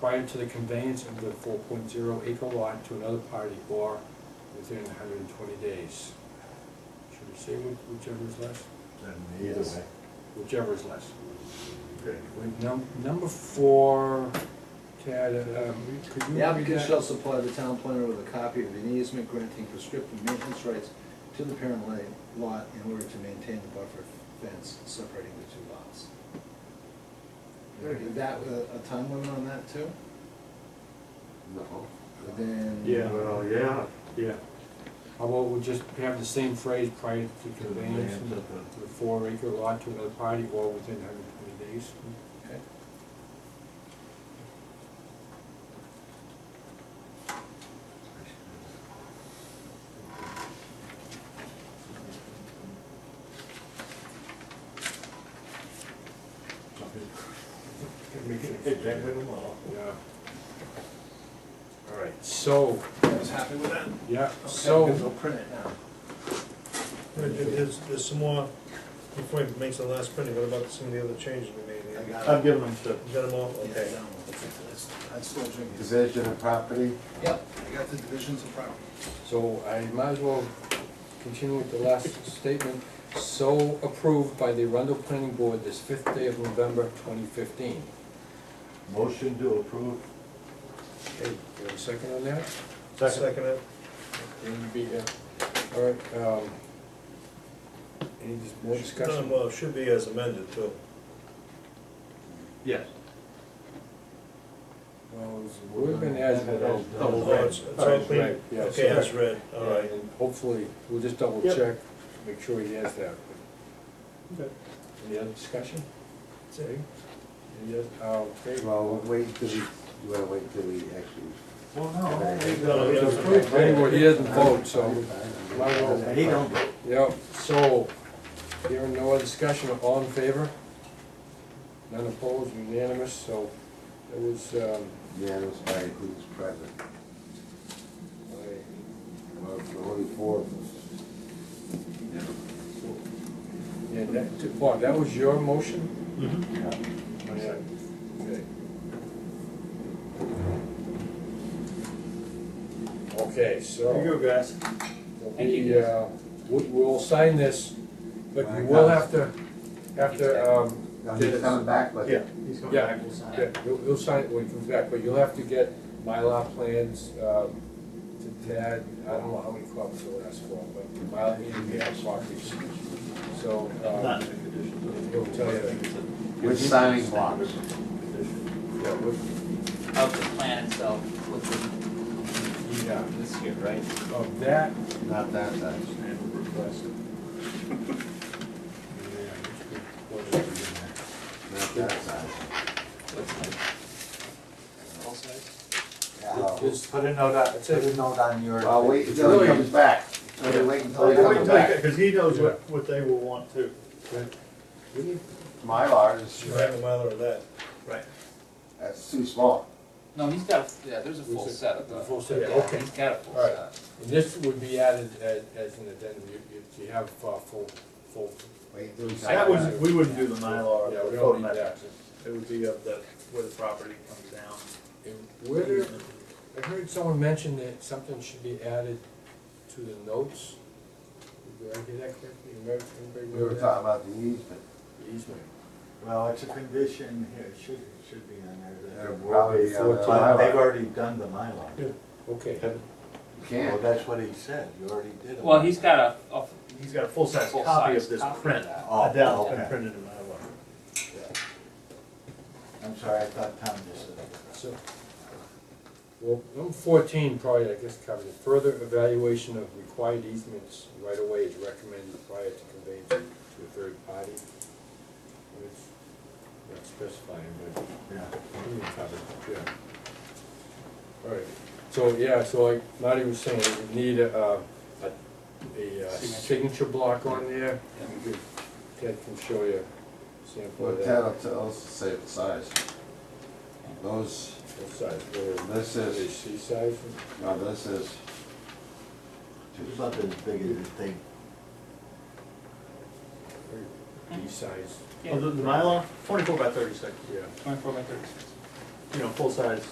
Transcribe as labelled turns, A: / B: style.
A: prior to the conveyance of the four point zero acre lot to another party or within hundred and twenty days. Should we say which- whichever is less?
B: And either way,
A: Whichever is less.
B: okay.
A: With num- number four, Tad, um, could you
C: The
A: read
C: applicant shall
A: that?
C: supply the town planner with a copy of an easement granting prescriptive maintenance rights to the parent la- lot in order to maintain the buffer fence separating the two lots. Is that a a time limit on that too?
B: No.
C: Then.
A: Yeah.
B: Well, yeah.
A: Yeah. How about we just have the same phrase prior to the conveyance of the
B: Conveyance of
A: the four acre lot to another party or within hundred and twenty days?
C: Okay.
A: That makes it-
B: Exactly the law.
A: Yeah. All right, so,
C: I was happy with that.
A: yeah,
C: Okay, good,
A: so,
C: We'll print it now.
D: There's, there's some more, before he makes the last printing, what about some of the other changes we made?
C: I
D: You
C: got it.
E: Um,
B: I've given them to
D: got them all?
C: Yeah, I
D: Okay.
C: know. That's- I'm still drinking.
B: division of property.
C: Yep, I got the divisions of property.
A: so I might as well continue with the last statement. So approved by the Arundel Planning Board this fifth day of November twenty fifteen.
B: Motion to approve.
A: Hey, you have a second on that?
D: Second it?
A: Then be, uh, all right, um, any dis- more
D: No,
A: discussion?
D: Well, it should be as amended too.
B: Yes.
A: Well, it's- Would have been as,
B: Double
D: Oh, it's, it's all
A: Alright,
D: clean?
A: right, yeah, so-
D: Okay, as read, all
A: Yeah,
D: right.
A: and hopefully, we'll just double
D: Yep.
A: check, make sure he has that.
D: Okay.
A: Any other discussion?
D: That's it.
A: Any other, oh, okay, well,
E: Well, wait till we, you wanna wait till we actually.
B: Well,
D: No,
B: no.
D: yeah.
A: Anyway, he doesn't vote, so, might as well-
B: He don't.
A: yep, so, hearing no other discussion, all in favor? None opposed, unanimous, so, it was, um,
E: Yeah, it was by who's present.
A: by-
E: Well, the only four of us.
A: yeah, that, Bob, that was your motion?
B: Mm-hmm.
E: Yeah.
A: Yeah. Okay. Okay, so.
B: you go, guys.
A: Thank you. We, we'll sign this, but we will have to, have to, um,
E: Now, he's coming back, but.
B: Yeah. He's coming
A: Yeah.
B: back, we'll sign.
A: yeah, you'll, you'll sign it when it comes back, but you'll have to get Mylar plans, um, to Tad, I don't know how many copies he'll ask for, but Mylar, he can get copies. So,
B: Not
A: um,
B: in the condition.
A: he'll tell you,
E: With signing blocks.
A: yeah, what,
F: of the plan itself, within
A: yeah,
F: this year, right?
A: of that,
E: Not that size. Not that size. Yeah.
A: Just-
B: Put a note on,
A: That's it.
B: put a note on your.
E: Well, wait until he comes back. Wait, wait until he comes back.
B: Because he knows what, what they will want too.
E: My large
D: Should I have a mile or that?
B: Right.
E: that's too small.
F: No, he's got, a- yeah, there's a full
A: There's a-
F: set of
A: the
F: those.
A: full set,
F: Yeah,
A: okay.
F: He's got a full
A: All right.
F: set.
A: And this would be added as, as an addendum, you, you- you have, uh, full, full,
E: Wait till he's
B: That
E: back.
B: was, we wouldn't do the Mylar,
A: yeah, we
B: the
A: don't need
B: photometric.
A: that.
B: It would be of the, where the property comes down.
A: And Where, did- I heard someone mention that something should be added to the notes. Did I hear that correctly? Remember- anybody
E: We were
A: remember
E: talking
A: that?
E: about the easement.
A: Easement.
B: Well, it's a condition here, it should, it should be on there.
E: Yeah, probably on the
B: But They've
E: Mylar.
B: already done the Mylar.
A: Okay,
E: You
B: Well,
E: can't.
B: that's what he said, you already did it.
F: Well, he's got a, a
B: He's got a full-size
F: full size copy of that.
B: Oh,
D: Adele
B: okay.
D: printed in Mylar.
B: I'm sorry, I thought Tom just said it.
A: so, well, number fourteen probably, I guess, covers it. Further evaluation of required easements right away is recommended prior to conveyance to a third party. It's not specifying, but
B: Yeah.
A: Yeah. All right, so, yeah, so like Marty was saying, you need a, uh, a, a uh,
F: Signature.
A: signature block on there. You could- Ted can show you a sample
E: Well,
A: of
E: Ted
A: that.
E: will tell us the same size. Those,
A: What size, what
E: this
A: is it,
E: is,
A: C size?
E: no, this is,
B: It's about as big as this thing.
A: Or D size,
F: Yeah,
B: Oh, Mylar, twenty-four by thirty-six,
A: yeah.
F: twenty-four by thirty-six.
B: you know, full-size